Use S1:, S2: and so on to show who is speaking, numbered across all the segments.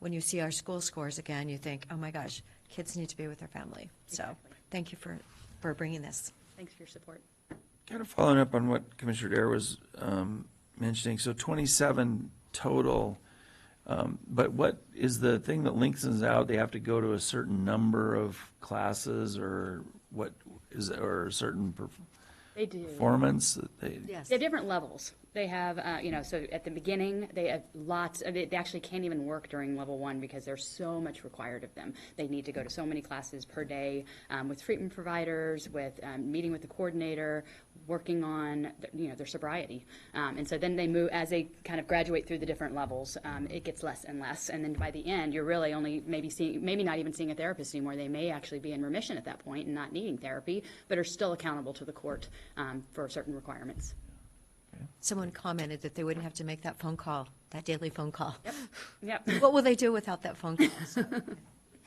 S1: when you see our school scores again, you think, oh my gosh, kids need to be with their family. So
S2: Exactly.
S1: thank you for, for bringing this.
S2: Thanks for your support.
S3: Kind of following up on what Commissioner Dare was um, mentioning, so 27 total, um, but what is the thing that links us out? They have to go to a certain number of classes or what is, or a certain perf-
S2: They do.
S3: performance that they?
S1: Yes.
S2: They have different levels. They have, uh, you know, so at the beginning, they have lots, of- they they actually can't even work during level one because there's so much required of them. They need to go to so many classes per day um, with treatment providers, with um, meeting with the coordinator, working on, th- you know, their sobriety. Um, And so then they move, as they kind of graduate through the different levels, um, it gets less and less. And then by the end, you're really only maybe seeing, maybe not even seeing a therapist anymore. They may actually be in remission at that point and not needing therapy, but are still accountable to the court um, for certain requirements.
S1: Someone commented that they wouldn't have to make that phone call, that daily phone call.
S2: Yep.
S1: What will they do without that phone call? So,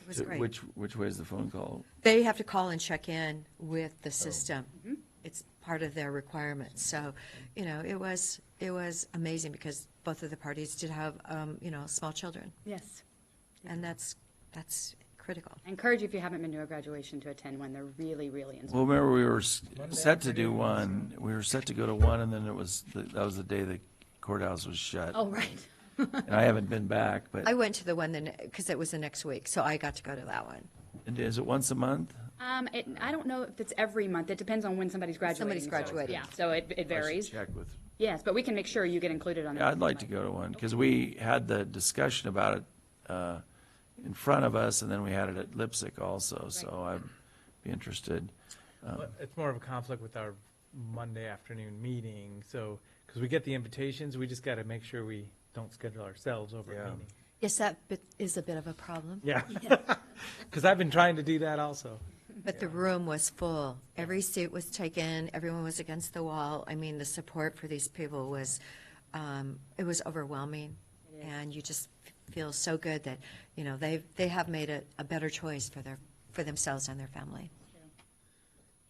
S1: It was
S3: So
S1: great.
S3: Which, which way is the phone call?
S1: They have to call and check in with the system.
S2: Mm-hmm.
S1: It's part of their requirements. So, you know, it was, it was amazing because both of the parties did have, um, you know, small children.
S2: Yes.
S1: And that's, that's critical.
S2: I encourage you, if you haven't been to a graduation, to attend one. They're really, really inspiring.
S3: Well, remember, we were s- set to do one, we were set to go to one, and then it was, that was the day the courthouse was shut.
S2: Oh, right.
S3: And I haven't been back,
S1: I
S3: but,
S1: went to the one then, because it was the next week, so I got to go to that one.
S3: and is it once a month?
S2: Um, it, I don't know if it's every month. It depends on when somebody's graduating.
S1: Somebody's
S2: so-
S1: graduating.
S2: Yeah, so it, it
S3: I should
S2: varies.
S3: Check with.
S2: Yes, but we can make sure you get included on.
S3: Yeah,
S2: it.
S3: I'd like to go to one, because we had the discussion about it uh, in front of us, and then we had it at Lipsick also, so I'd be interested.
S4: Well, It's more of a conflict with our Monday afternoon meeting, so, because we get the invitations, we just got to make sure we don't schedule ourselves over
S3: Yeah.
S4: a meeting.
S1: Yes, that bit is a bit of a problem,
S4: Yeah. Because I've been trying to do that also.
S1: but the room was full. Every seat was taken, everyone was against the wall. I mean, the support for these people was, um, it was overwhelming. And you just feel so good that, you know, they, they have made a, a better choice for their, for themselves and their family.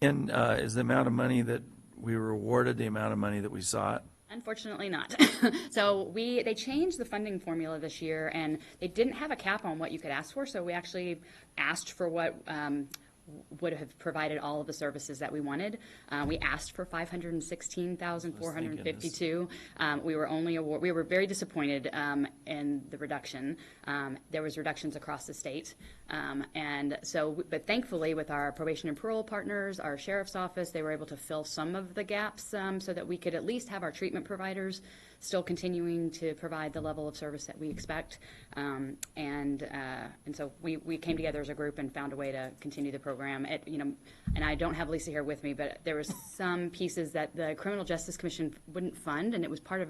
S3: And uh, is the amount of money that we were awarded, the amount of money that we sought?
S2: Unfortunately not. So we, they changed the funding formula this year and they didn't have a cap on what you could ask for, so we actually asked for what um, would have provided all of the services that we wanted. Uh, We asked for five hundred and sixteen thousand, four hundred and fifty-two. Um, We were only award, we were very disappointed um, in the reduction. Um, There was reductions across the state. Um, And so, but thankfully with our probation and parole partners, our sheriff's office, they were able to fill some of the gaps um, so that we could at least have our treatment providers still continuing to provide the level of service that we expect. Um, And, uh, and so we, we came together as a group and found a way to continue the program. It, you know, and I don't have Lisa here with me, but there was some pieces that the Criminal Justice Commission wouldn't fund, and it was part of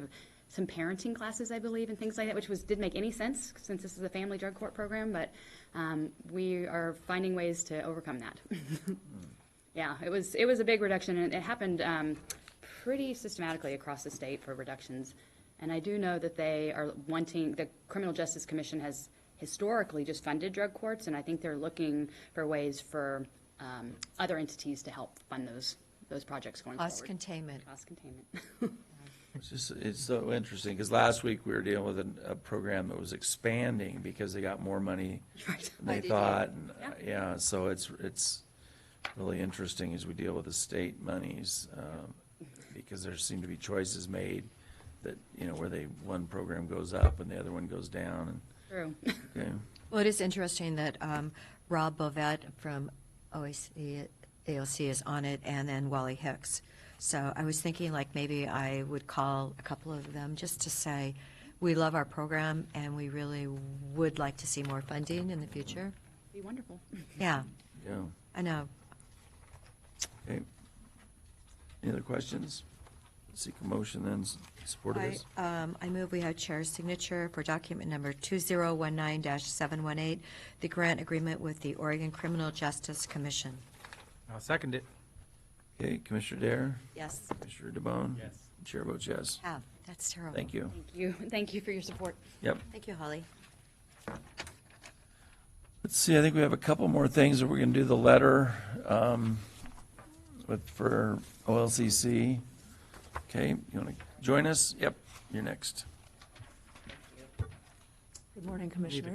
S2: some parenting classes, I believe, and things like that, which was, didn't make any sense since this is a family drug court program, but um, we are finding ways to overcome that. Yeah, it was, it was a big reduction, and it happened um, pretty systematically across the state for reductions. And I do know that they are wanting, the Criminal Justice Commission has historically just funded drug courts, and I think they're looking for ways for um, other entities to help fund those, those projects going forward.
S1: Cost containment.
S2: Cost containment.
S3: It's just, it's so interesting, because last week we were dealing with an- a program that was expanding because they got more money
S2: Right.
S3: than they thought. and, uh, Yeah, so it's, it's really interesting as we deal with the state monies, um, because there seem to be choices made that, you know, where they, one program goes up and the other one goes down,
S2: True.
S3: and, okay.
S1: Well, it is interesting that um, Rob Bovet from OAC, AOC is on it, and then Wally Hicks. So I was thinking, like, maybe I would call a couple of them just to say, we love our program, and we really would like to see more funding in the future.
S2: Be wonderful.
S1: Yeah,
S3: Yeah,
S1: I know.
S3: okay. Any other questions? Seek a motion then, s- support of
S1: I,
S3: this?
S1: um, I move we have chair's signature for document number 2019-718, the grant agreement with the Oregon Criminal Justice Commission.
S4: I'll second it.
S3: Okay, Commissioner Dare,
S1: Yes,
S3: Commissioner DeBonne?
S4: Yes.
S3: Chair votes yes.
S1: have, that's terrible.
S3: Thank you.
S2: Thank you, thank you for your support.
S3: Yep.
S1: Thank you, Holly.
S3: Let's see, I think we have a couple more things that we're gonna do the letter, um, with, for OLCC. Okay, you wanna join us? Yep, you're next.
S5: Good morning, Commissioners.